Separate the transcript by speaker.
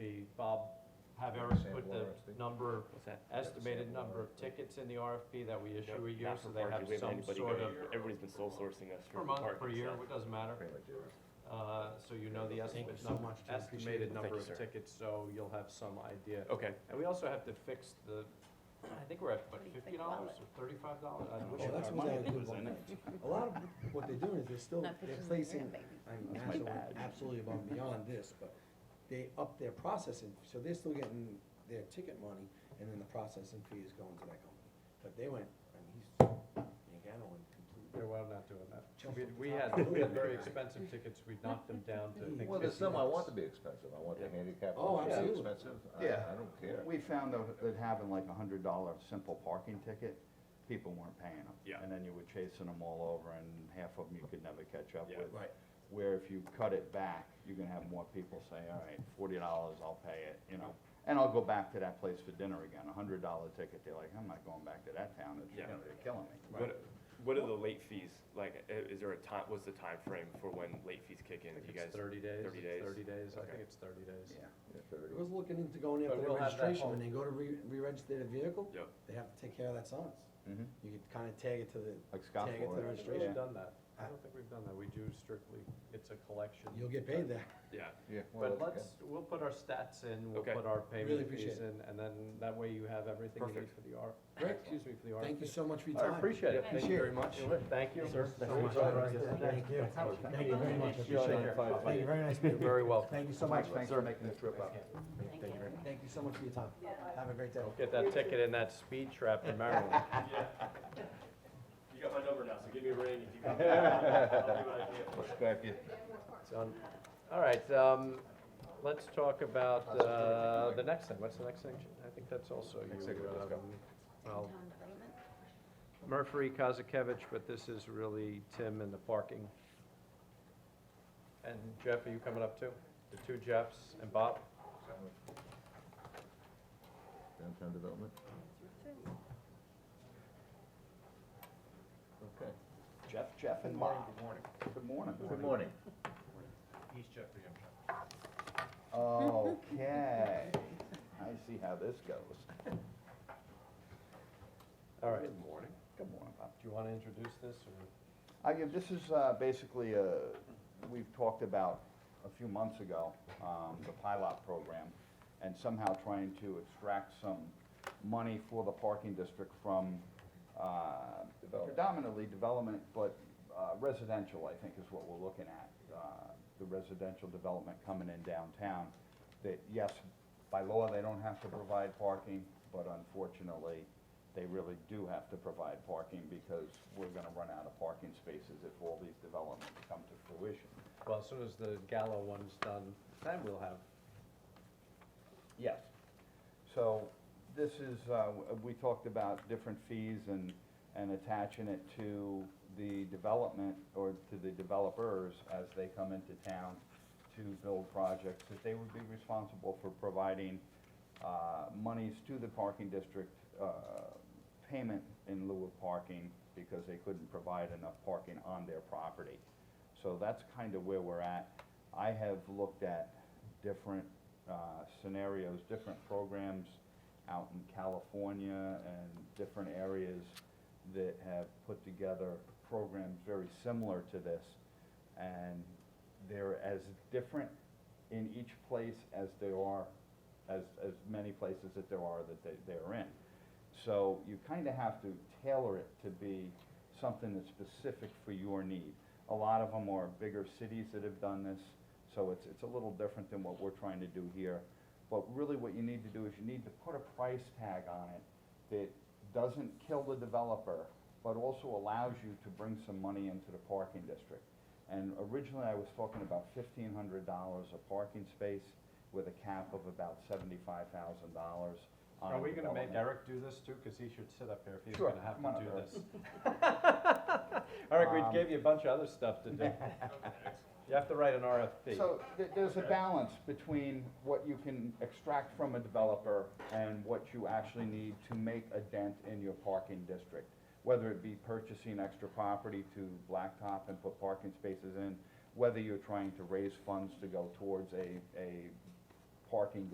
Speaker 1: have Eric
Speaker 2: Same
Speaker 1: put the
Speaker 2: warrant, I think.
Speaker 1: number,
Speaker 3: What's that?
Speaker 1: estimated number of tickets in the RFP that we issue a year,
Speaker 3: Not
Speaker 1: so
Speaker 3: for
Speaker 1: they have
Speaker 3: parking, we haven't
Speaker 1: some
Speaker 3: anybody
Speaker 1: sort of,
Speaker 3: going. Everybody's been sole sourcing us
Speaker 1: per
Speaker 3: for
Speaker 1: month, per
Speaker 3: parking,
Speaker 1: year,
Speaker 3: so.
Speaker 1: it doesn't matter.
Speaker 2: Pretty much zero.
Speaker 1: Uh, so you know the
Speaker 3: Thank you
Speaker 1: estimate
Speaker 3: so
Speaker 1: number,
Speaker 3: much, I appreciate
Speaker 1: estimated
Speaker 3: it.
Speaker 1: number
Speaker 3: Thank you,
Speaker 1: of
Speaker 3: sir.
Speaker 1: tickets, so you'll have some idea.
Speaker 3: Okay,
Speaker 1: And we also have to fix the, I think we're at, what,
Speaker 4: What do you
Speaker 1: fifty
Speaker 4: think about
Speaker 1: dollars or thirty-five dollars? I wish it
Speaker 5: Oh,
Speaker 1: was
Speaker 5: that's what
Speaker 1: money.
Speaker 5: I did one night. A lot of what they're doing is they're still,
Speaker 4: Not
Speaker 5: they're placing,
Speaker 4: pushing the rim, baby.
Speaker 5: I'm
Speaker 3: That's my
Speaker 5: absolutely,
Speaker 3: bad.
Speaker 5: absolutely above and beyond this, but they up their processing, so they're still getting their ticket money, and then the processing fee is going to that company. But they went, I mean, he's, Yagano went completely.
Speaker 1: They're well not doing that.
Speaker 5: Jump
Speaker 1: We,
Speaker 5: up
Speaker 1: we
Speaker 5: the top.
Speaker 1: had, we had very expensive tickets, we knocked them down to, I think,
Speaker 2: Well, there's some I
Speaker 1: $50.
Speaker 2: want to be expensive, I want the handicap
Speaker 5: Oh,
Speaker 2: ones to be
Speaker 5: absolutely.
Speaker 2: expensive, I,
Speaker 6: Yeah.
Speaker 2: I don't care.
Speaker 6: We found though that having like a hundred dollar simple parking ticket, people weren't paying them.
Speaker 3: Yeah.
Speaker 6: And then you were chasing them all over and half of them you could never catch up
Speaker 3: Yeah.
Speaker 6: with.
Speaker 5: Right.
Speaker 6: Where if you cut it back, you're gonna have more people say, all right, forty dollars, I'll pay it, you know? And I'll go back to that place for dinner again, a hundred dollar ticket, they're like, I'm not going back to that town, it's, you
Speaker 3: Yeah.
Speaker 6: know, they're killing me.
Speaker 3: what, what are the late fees, like, i- is there a time, what's the time frame for when late fees kick in?
Speaker 1: I think
Speaker 3: Do you
Speaker 1: it's
Speaker 3: guys?
Speaker 1: thirty days,
Speaker 3: 30
Speaker 1: it's
Speaker 3: days?
Speaker 1: thirty days, I
Speaker 3: Okay.
Speaker 1: think it's thirty days.
Speaker 6: Yeah.
Speaker 2: Yeah, thirty.
Speaker 5: I was looking into going
Speaker 1: But
Speaker 5: after the
Speaker 1: we'll have that
Speaker 5: registration,
Speaker 1: whole-
Speaker 5: when they go to re, re-register their vehicle,
Speaker 3: Yep.
Speaker 5: they have to take care of that signs.
Speaker 6: Mhm.
Speaker 5: You could kinda tag it to the,
Speaker 6: Like
Speaker 5: tag it to the
Speaker 6: scaffolding.
Speaker 1: We've really
Speaker 5: registration,
Speaker 1: done that. I don't think we've done that. We do strictly, it's a collection.
Speaker 5: you'll get paid there.
Speaker 3: Yeah,
Speaker 2: Yeah, well,
Speaker 1: But
Speaker 2: that's
Speaker 1: let's, we'll put our stats in, we'll
Speaker 3: Okay.
Speaker 1: put our
Speaker 5: Really
Speaker 1: payment
Speaker 5: appreciate
Speaker 1: fees in, and then that way you have everything you need
Speaker 3: Perfect.
Speaker 1: for the R.
Speaker 5: Great.
Speaker 1: Excuse me, for the R.
Speaker 5: Thank you so much for your time.
Speaker 1: I appreciate it. Thank you very much. Thank you. Sir.
Speaker 5: Thank you. Thank you very much. Thank you, very nice
Speaker 1: You're
Speaker 5: meeting you.
Speaker 1: very welcome.
Speaker 5: Thank you so much.
Speaker 6: Mike, thanks for making the trip up.
Speaker 4: Thank you.
Speaker 5: Thank you so much for your time. Have a great day.
Speaker 1: Get that ticket and that speed trap in Maryland.
Speaker 3: You got my number now, so give me a ring if you.
Speaker 2: good. Let's go after you.
Speaker 1: It's on- um, All right, um, let's talk about, uh, the next thing. What's the next thing? I think that's also you.
Speaker 2: Next segment, let's go.
Speaker 1: um, I'll Murphy, Kazakevich, but this is really Tim and the parking. And Jeff, are you coming up too? The two Jeffs and Bob?
Speaker 2: Downtown development. Okay.
Speaker 6: Jeff, Jeff and Bob. Good morning. Good morning.
Speaker 2: Good morning.
Speaker 6: Okay, I see how this goes.
Speaker 1: All right.
Speaker 6: Good morning. Good morning, Bob.
Speaker 1: Do you want to introduce this or?
Speaker 6: I give, this is, uh, basically, uh, we've talked about a few months ago, um, the pilot program, and somehow trying to extract some money for the parking district from, uh, predominantly development, but uh, residential, I think, is what we're looking at. Uh, the residential development coming in downtown, that, yes, by law, they don't have to provide parking, but unfortunately, they really do have to provide parking because we're gonna run out of parking spaces if all these developments come to fruition.
Speaker 1: Well, as soon as the Gallo one's done, then we'll have.
Speaker 6: Yes. So this is, uh, w- we talked about different fees and, and attaching it to the development or to the developers as they come into town to build projects, that they would be responsible for providing uh, monies to the parking district, uh, payment in lieu of parking because they couldn't provide enough parking on their property. So that's kind of where we're at. I have looked at different uh, scenarios, different programs out in California and different areas that have put together programs very similar to this. And they're as different in each place as there are, as, as many places that there are that they, they're in. So you kind of have to tailor it to be something that's specific for your need. A lot of them are bigger cities that have done this, so it's, it's a little different than what we're trying to do here. But really what you need to do is you need to put a price tag on it that doesn't kill the developer, but also allows you to bring some money into the parking district. And originally, I was talking about fifteen hundred dollars a parking space with a cap of about seventy-five thousand dollars on a
Speaker 1: Are we gonna make
Speaker 6: development.
Speaker 1: Eric do this too? Cause he should sit up here if he's
Speaker 6: Sure,
Speaker 1: gonna have
Speaker 6: come on
Speaker 1: to
Speaker 6: up,
Speaker 1: do
Speaker 6: Eric.
Speaker 1: this. Eric,
Speaker 6: Um,
Speaker 1: we gave you a bunch of other stuff to do. You have to write an RFP.
Speaker 6: So th- there's a balance between what you can extract from a developer and what you actually need to make a dent in your parking district. Whether it be purchasing extra property to blacktop and put parking spaces in, whether you're trying to raise funds to go towards a, a parking